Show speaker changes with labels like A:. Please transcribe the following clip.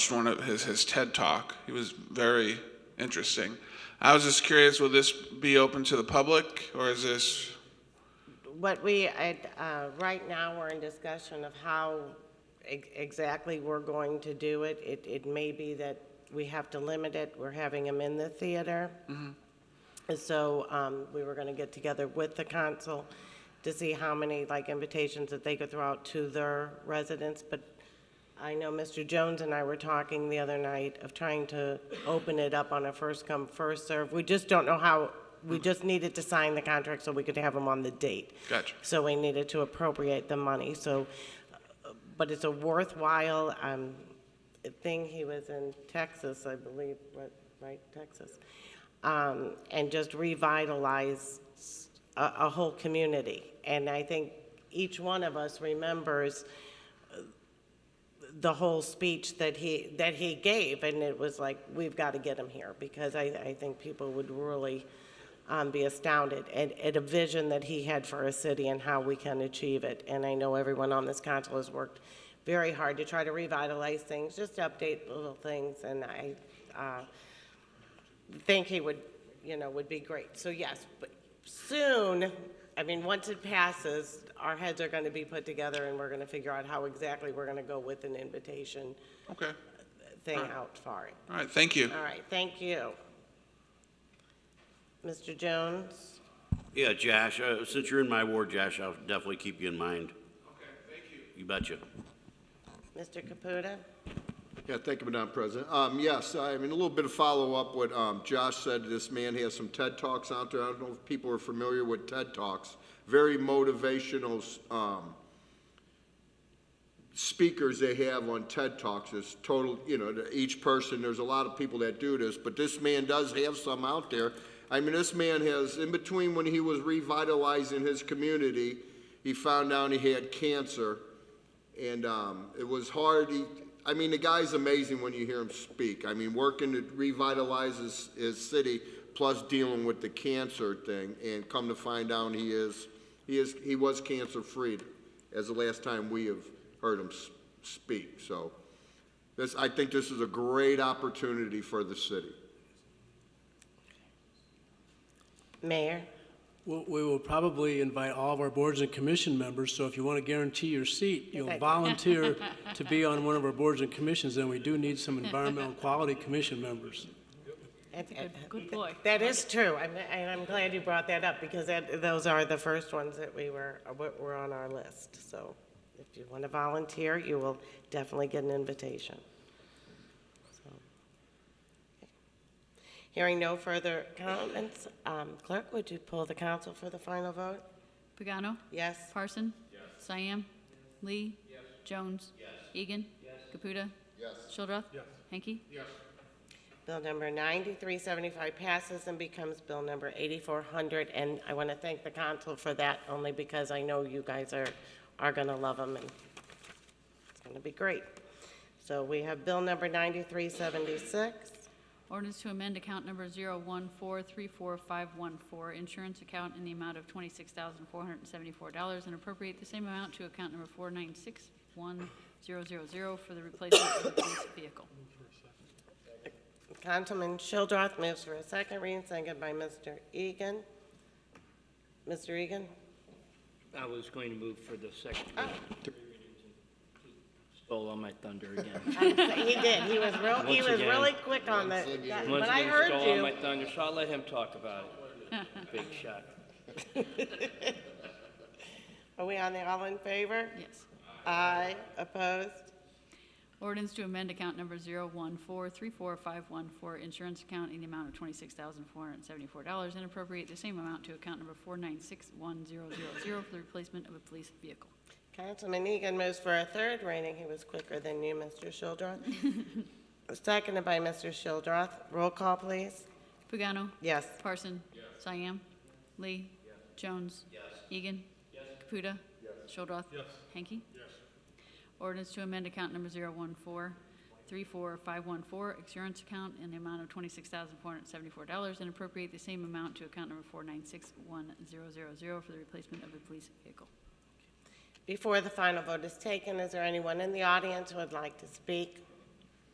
A: watched one of his, his TED talk. He was very interesting. I was just curious, will this be open to the public or is this,
B: What we, I- uh, right now, we're in discussion of how ex- exactly we're going to do it. It, it may be that we have to limit it, we're having them in the theater. And So um, we were going to get together with the council to see how many, like, invitations that they could throw out to their residents. But I know Mr. Jones and I were talking the other night of trying to open it up on a first-come, first-serve. We just don't know how, we just needed to sign the contract so we could have them on the date.
A: Gotcha.
B: So we needed to appropriate the money, so, uh, but it's a worthwhile um, thing. He was in Texas, I believe, right- right, Texas? Um, And just revitalized a, a whole community. And I think each one of us remembers the whole speech that he, that he gave, and it was like, we've got to get him here, because I, I think people would really um, be astounded at, at a vision that he had for a city and how we can achieve it. And I know everyone on this council has worked very hard to try to revitalize things, just update little things, and I uh, think he would, you know, would be great. So yes, but soon, I mean, once it passes, our heads are going to be put together, and we're going to figure out how exactly we're going to go with an invitation
A: okay.
B: thing out for it.
A: All right, thank you.
B: All right, thank you. Mr. Jones?
C: Yeah, Josh, uh, since you're in my ward, Josh, I'll definitely keep you in mind.
A: Okay, thank you.
C: You betcha.
B: Mr. Caputa?
D: Yeah, thank you, Madam President. Um, yes, I mean, a little bit of follow-up what, um, Josh said, this man has some TED Talks out there. I don't know if people are familiar with TED Talks. Very motivational, um, speakers they have on TED Talks is total, you know, to each person, there's a lot of people that do this, but this man does have some out there. I mean, this man has, in between when he was revitalizing his community, he found out he had cancer. And um, it was hard. He, I mean, the guy's amazing when you hear him speak. I mean, working to revitalize his, his city, plus dealing with the cancer thing, and come to find out he is, he is, he was cancer free, as the last time we have heard him s- speak. So, this, I think this is a great opportunity for the city.
B: Mayor?
E: Well, We will probably invite all of our boards and commission members, so if you want to guarantee your seat, you'll
B: Okay.
E: volunteer to be on one of our boards and commissions, and we do need some environmental quality commission members.
B: That's
F: good- good boy.
B: That is true, I'm- and I'm glad you brought that up, because that, those are the first ones that we were, what were on our list. So if you want to volunteer, you will definitely get an invitation. So. Hearing no further comments, um, clerk, would you pull the council for the final vote?
F: Pagano?
B: Yes?
F: Parson? Yes. Cyan? Lee? Yes. Jones? Yes. Egan? Yes. Caputa? Yes. Shildroth? Yes. Hanky? Yes.
B: Bill number 9375 passes and becomes bill number 8400, and I want to thank the council for that, only because I know you guys are, are going to love them, and it's going to be great. So we have bill number 9376.
F: Ordinance to amend account number 014345514, insurance account in the amount of $26,474, and appropriate the same amount to account number 4961000 for the replacement of the police vehicle.
B: Councilman Childrath moves for a second reading, seconded by Mr. Egan. Mr. Egan?
G: I was going to move for the second
B: Ah.
G: reading. Stole all my thunder again.
B: He did, he was real, he
G: Once
B: was
G: again.
B: really quick on that,
G: Once
B: but I
G: again,
B: heard
G: Stole all
B: you.
G: my thunder, so I'll let him talk about it. Big shot.
B: Are we on the all in favor?
F: Yes.
B: Aye, opposed?
F: Ordinance to amend account number 014345514, insurance account in the amount of $26,474, and appropriate the same amount to account number 4961000 for the replacement of a police vehicle.
B: Councilman Egan moves for a third reading. He was quicker than you, Mr. Shildroth. Seconded by Mr. Shildroth. Roll call, please.
F: Pagano?
B: Yes.
F: Parson? Yes. Cyan? Lee? Jones? Yes. Egan? Yes. Caputa? Yes. Shildroth? Yes. Hanky? Yes. Ordinance to amend account number 014345514, insurance account in the amount of $26,474, and appropriate the same amount to account number 4961000 for the replacement of a police vehicle.
B: Before the final vote is taken, is there anyone in the audience who would like to speak?